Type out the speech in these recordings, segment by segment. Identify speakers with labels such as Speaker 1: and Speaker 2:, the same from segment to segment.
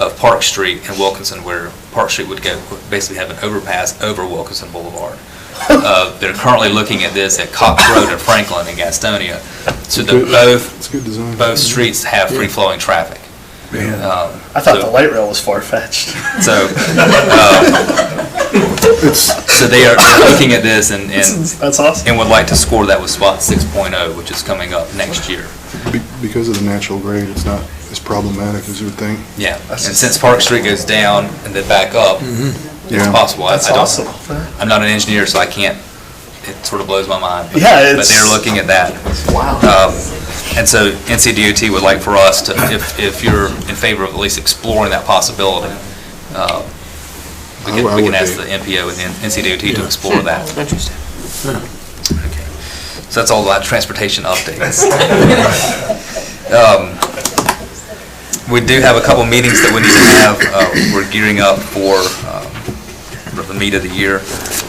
Speaker 1: of Park Street and Wilkinson, where Park Street would go, basically have an overpass over Wilkinson Boulevard. Uh, They're currently looking at this at Cox Road and Franklin and Gastonia, so that both,
Speaker 2: It's good design.
Speaker 1: both streets have free-flowing traffic. Um,
Speaker 3: I thought the
Speaker 1: so-
Speaker 3: light rail was far-fetched.
Speaker 1: So,
Speaker 2: It's,
Speaker 1: so they are they're looking at this and, and
Speaker 3: That's awesome.
Speaker 1: and would like to score that with spot 6.0, which is coming up next year.
Speaker 2: be- because of the natural grade, it's not as problematic as you would think.
Speaker 1: Yeah, and since Park Street goes down and then back up, it's
Speaker 2: Mm-hmm. Yeah.
Speaker 1: possible. I-
Speaker 3: That's
Speaker 1: I don't-
Speaker 3: awesome.
Speaker 1: I'm not an engineer, so I can't, it sort of blows my mind. but-
Speaker 3: Yeah,
Speaker 1: But
Speaker 3: it's-
Speaker 1: they're looking at that.
Speaker 3: Wow.
Speaker 1: Um, And so NCDOT would like for us to, if, if you're in favor of at least exploring that possibility, uh, we
Speaker 2: I would-
Speaker 1: can,
Speaker 2: I
Speaker 1: we can
Speaker 2: would
Speaker 1: ask
Speaker 2: be.
Speaker 1: the NPO and NCDOT to explore that. Interesting. So that's all about transportation updates. Um, We do have a couple meetings that we need to have. Uh, We're gearing up for um, for the meat of the year.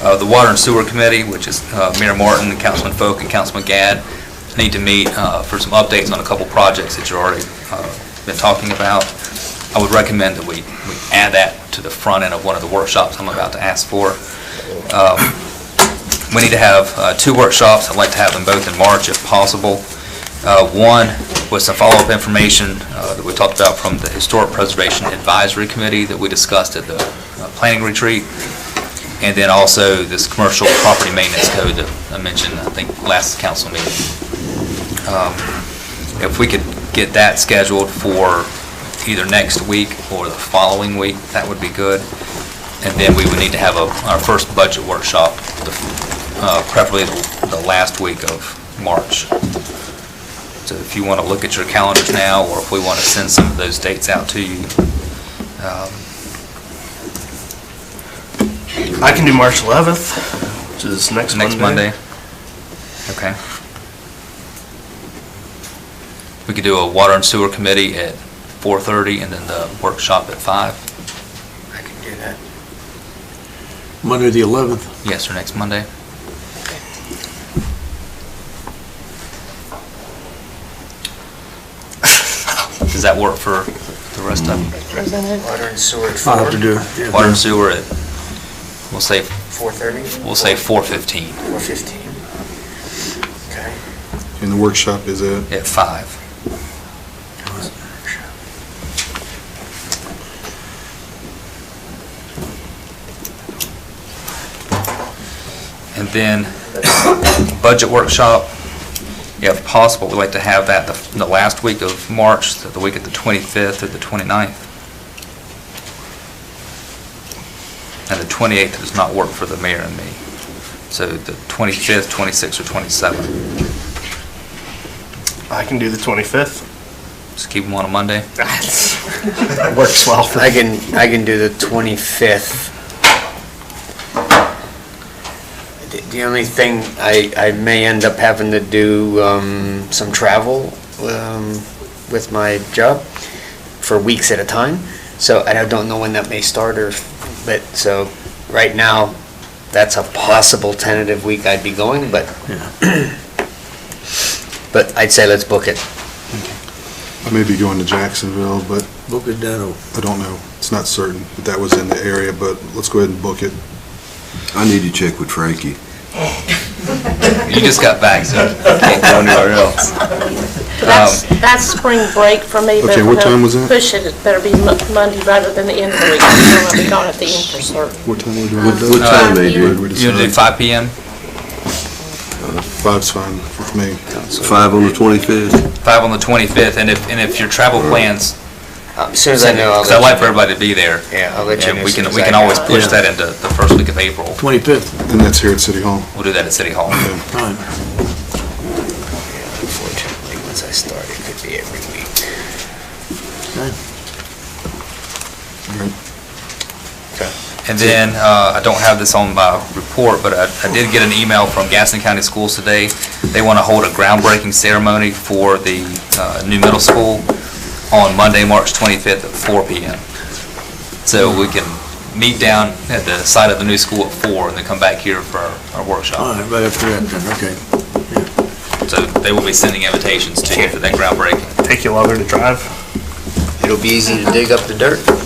Speaker 1: Uh, The Water and Sewer Committee, which is uh, Mayor Martin, and Councilman Folk, and Councilman Gadd, need to meet uh, for some updates on a couple projects that you've already uh, been talking about. I would recommend that we we add that to the front end of one of the workshops I'm about to ask for. Um, We need to have uh, two workshops. I'd like to have them both in March if possible. Uh, One was some follow-up information uh, that we talked about from the Historic Preservation Advisory Committee that we discussed at the uh, planning retreat. And then also this commercial property maintenance code that I mentioned, I think, last council meeting. Um, If we could get that scheduled for either next week or the following week, that would be good. And then we would need to have a- our first budget workshop, the- uh, preferably the- the last week of March. So if you want to look at your calendars now, or if we want to send some of those dates out to you. um,
Speaker 3: I can do March 11th, which is next Monday.
Speaker 1: Next Monday? Okay. We could do a water and sewer committee at 4:30 and then the workshop at 5.
Speaker 3: I can do that.
Speaker 4: Monday, the 11th.
Speaker 1: Yes, or next Monday? Does that work for the rest of
Speaker 5: Water and sewer at
Speaker 4: I'll have to do it. yeah.
Speaker 1: water and sewer at, we'll say,
Speaker 5: 4:30?
Speaker 1: we'll say 4:15
Speaker 5: 4:15. Okay.
Speaker 2: And the workshop is at,
Speaker 1: at 5. And then budget workshop, if possible, we'd like to have that the the last week of March, the the week of the 25th or the 29th. And the 28th does not work for the mayor and me. So the 25th, 26th, or 27th.
Speaker 3: I can do the 25th.
Speaker 1: Just keep them on a Monday.
Speaker 3: Works well for
Speaker 5: I can, I can do the 25th. The- The only thing, I, I may end up having to do um, some travel um, with my job for weeks at a time, so I don't know when that may start or, but, so, right now, that's a possible tentative week I'd be going, but, but I'd say let's book it.
Speaker 2: I may be going to Jacksonville, but
Speaker 4: Book it down.
Speaker 2: I don't know. It's not certain, but that was in the area, but let's go ahead and book it.
Speaker 6: I need to check with Frankie.
Speaker 1: You just got back, so um, can't go anywhere else.
Speaker 7: That's, that's spring break for me. but
Speaker 2: Okay, what
Speaker 7: we're gonna
Speaker 2: time was that?
Speaker 7: Push it, it better be Mo- Monday rather than the end of the week, I'm gonna be gone at the end for certain.
Speaker 2: What time are we doing?
Speaker 6: What what time, Adrian?
Speaker 1: Uh, You want to do 5 PM?
Speaker 2: Five's fine with me.
Speaker 6: Five on the 25th?
Speaker 1: 5 on the 25th, and if, and if your travel plans,
Speaker 5: Uh, As soon as I know. I'll
Speaker 1: because I'd
Speaker 5: let
Speaker 1: like
Speaker 5: you
Speaker 1: for everybody to be there.
Speaker 5: Yeah, I'll let you
Speaker 1: And
Speaker 5: know
Speaker 1: we
Speaker 5: as soon
Speaker 1: can,
Speaker 5: as
Speaker 1: we can
Speaker 5: I know.
Speaker 1: always push
Speaker 4: Yeah.
Speaker 1: that into the first week of April.
Speaker 4: 25th,
Speaker 2: And that's here at City Hall.
Speaker 1: We'll do that at City Hall.
Speaker 4: fine.
Speaker 5: Unfortunately, once I start, it could be every week.
Speaker 4: Okay.
Speaker 2: All right.
Speaker 1: And then, uh, I don't have this on my report, but I I did get an email from Gaston County Schools today. They want to hold a groundbreaking ceremony for the uh, new middle school on Monday, March 25th at 4 PM. So we can meet down at the site of the new school at 4 and then come back here for our- our
Speaker 4: All
Speaker 1: workshop.
Speaker 4: right, right after that, then, okay.
Speaker 1: So they will be sending invitations to you for that groundbreaking.
Speaker 3: take you longer to drive.
Speaker 5: it'll be easy to dig up the dirt.